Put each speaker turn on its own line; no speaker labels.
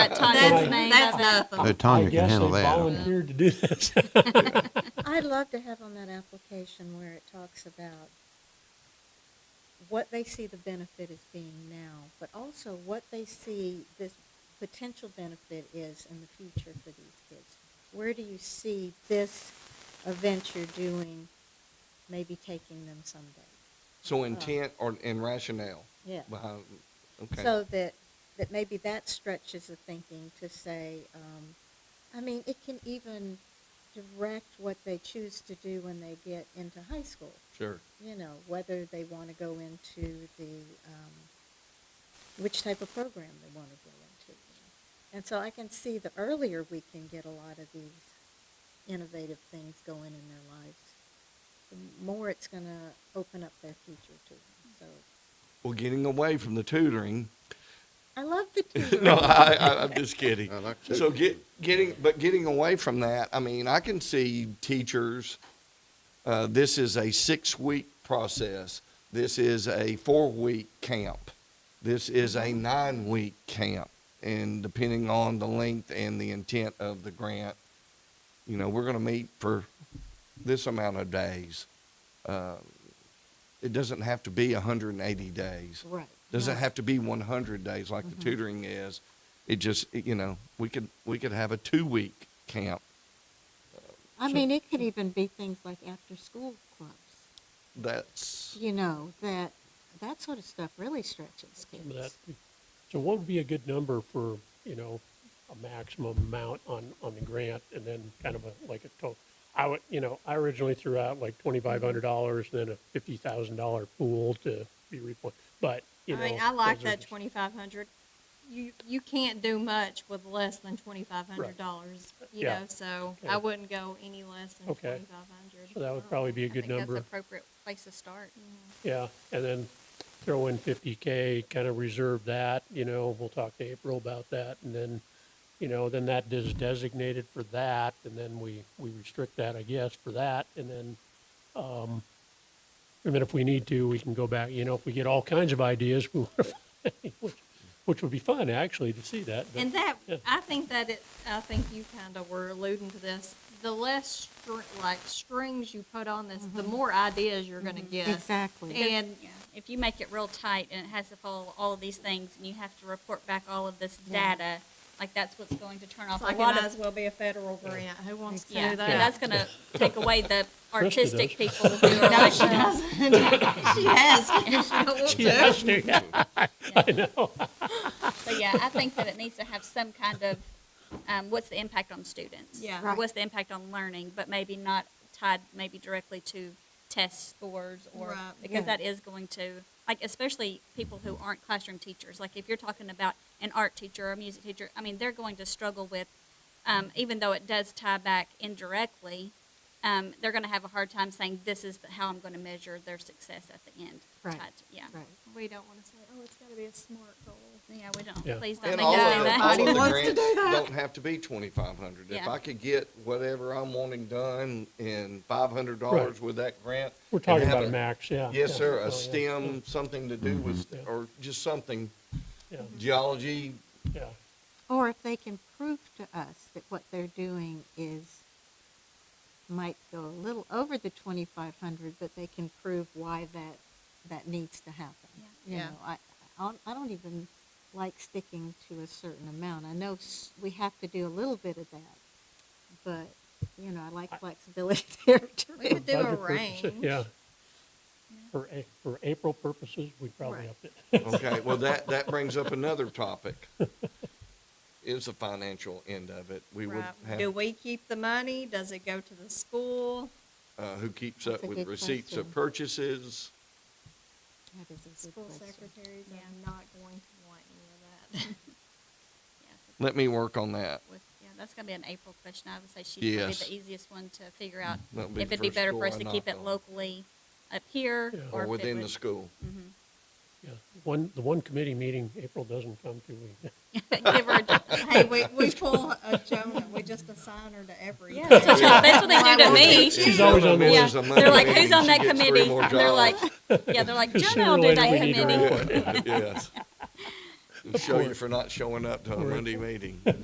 That Tanya's
That's-
name.
that's
I think.
nothing.
No,
I
Tanya can
guess
handle
they
that. okay.
volunteered to do this.
I'd love to have on that application where it talks about what they see the benefit as being now, but also what they see this potential benefit is in the future for these kids. Where do you see this event you're doing, maybe taking them someday?
So intent or, and rationale
Yeah.
behind, okay.
So that, that maybe that stretches the thinking to say, um, I mean, it can even direct what they choose to do when they get into high school.
Sure.
you know, whether they want to go into the, um, which type of program they want to go into. And so I can see the earlier we can get a lot of these innovative things going in their lives, the more it's going to open up their future to them. So
Well, getting away from the tutoring.
I love the tutoring.
No, I, I, I'm just kidding.
I like to.
So get, getting, but getting away from that, I mean, I can see teachers, uh, this is a six-week process. This is a four-week camp. This is a nine-week camp. And depending on the length and the intent of the grant, you know, we're gonna meet for this amount of days. Uh, It doesn't have to be hundred and eighty days.
Right.
Doesn't
Right.
have to be one hundred days like
Mm-hmm.
the tutoring is. It just, it- you know, we could, we could have a two-week camp.
I mean, it could even be things like after-school clubs,
That's,
you know, that, that sort of stuff really stretches
That-
kids.
So what would be a good number for, you know, a maximum amount on, on the grant and then kind of a, like a total? I would, you know, I originally threw out like twenty-five hundred dollars, then a fifty thousand dollar pool to be replenished, but, you
I
know.
mean, I like
those are
that
just-
twenty-five hundred. You, you can't do much with less than twenty-five hundred dollars, you
Yeah.
know, so
Okay.
I wouldn't go any less than
Okay.
twenty-five hundred.
So that would probably be a good
I think that's
number,
an appropriate place to start.
yeah, and then throw in fifty K, kind of reserve that, you know, we'll talk to April about that, and then, you know, then that is designated for that, and then we, we restrict that, I guess, for that, and then, um, and then if we need to, we can go back, you know, if we get all kinds of ideas, we, which, which would be fun, actually, to see that, but,
And that,
Yeah.
I think that it, I think you kind of were alluding to this, the less str- like strings you put on this, the more ideas you're gonna get.
Exactly.
And
Yeah, if you make it real tight and it has to follow all of these things and you have to report back all of this
Yeah.
data, like that's what's going to turn
it's
off a
like it
lot
might
of.
as well be a federal grant, who wants to
Yeah,
do
and
that?
that's gonna take away the
Christy
artistic people who are
No,
like,
she doesn't, she has. She
yeah, let's do that. I know,
so yeah, I think that it needs to have some kind of, um, what's the impact on students?
Yeah.
Or
Right.
what's the impact on learning, but maybe not tied maybe directly to test scores or,
Right.
because
Yeah.
that is going to, like especially people who aren't classroom teachers, like if you're talking about an art teacher or a music teacher, I mean, they're going to struggle with, um, even though it does tie back indirectly, um, they're gonna have a hard time saying, this is how I'm gonna measure their success at the end.
Right.
tied to- Yeah.
Right.
We don't wanna say, oh, it's gotta be a smart goal.
Yeah, we
Yeah.
don't, please don't
and
make
all
us do
of the,
that.
all of the
Nobody wants to
grants
do that.
don't have to be twenty-five hundred. If
Yeah.
I could get whatever I'm wanting done in five hundred dollars with that grant.
we're
and
talking
have
about a max, yeah.
Yes,
yeah.
sir,
Oh, yeah. Mm-hmm.
a STEM, something to do with,
Yeah.
or just something,
Yeah,
geology,
yeah.
Or if they can prove to us that what they're doing is, might go a little over the twenty-five hundred, but they can prove why that, that needs to happen. You
Yeah.
know, I, I don't, I don't even like sticking to a certain amount. I know s- we have to do a little bit of that, but, you know, I like flexibility there
We
too.
could do a
Budget purposes,
range.
Yeah. For, A- for April purposes, we probably
Right.
upped it.
Okay, well, that, that brings up another topic. Is the financial end of it. We would
Right. Do
have,
we keep the money? Does it go to the school?
uh, who keeps up
That's a
with
good
receipts of
question.
purchases?
That is a good
School
question.
secretaries
Yeah.
are not going to want any of that.
Yeah.
Let me work on that.
with, yeah, that's gonna be an April question. I would say she's probably
Yes.
the easiest one to figure out
That'll
if
the
it'd be
first
better
door
for us
I
to keep
knock
it
on,
locally up here.
Yeah.
Or
if it
within the
would-
school.
Mhm.
Yeah. One, the one committee meeting, April doesn't come to me.
Give her, a-
Hey, we, we pull a Jonah, we just assign her to every.
yeah, that's what
Yeah.
y'all- that's what they do to me.
She's always on
Yeah,
Misses a Monday
they're like,
meeting,
who's on
she
that
gets three
committee?
more
And they're
jobs.
like, yeah, they're like,
Sooner
Jonah will
or later
do that
we need her
committee.
report.
Yes. show you for not showing up to a Monday meeting.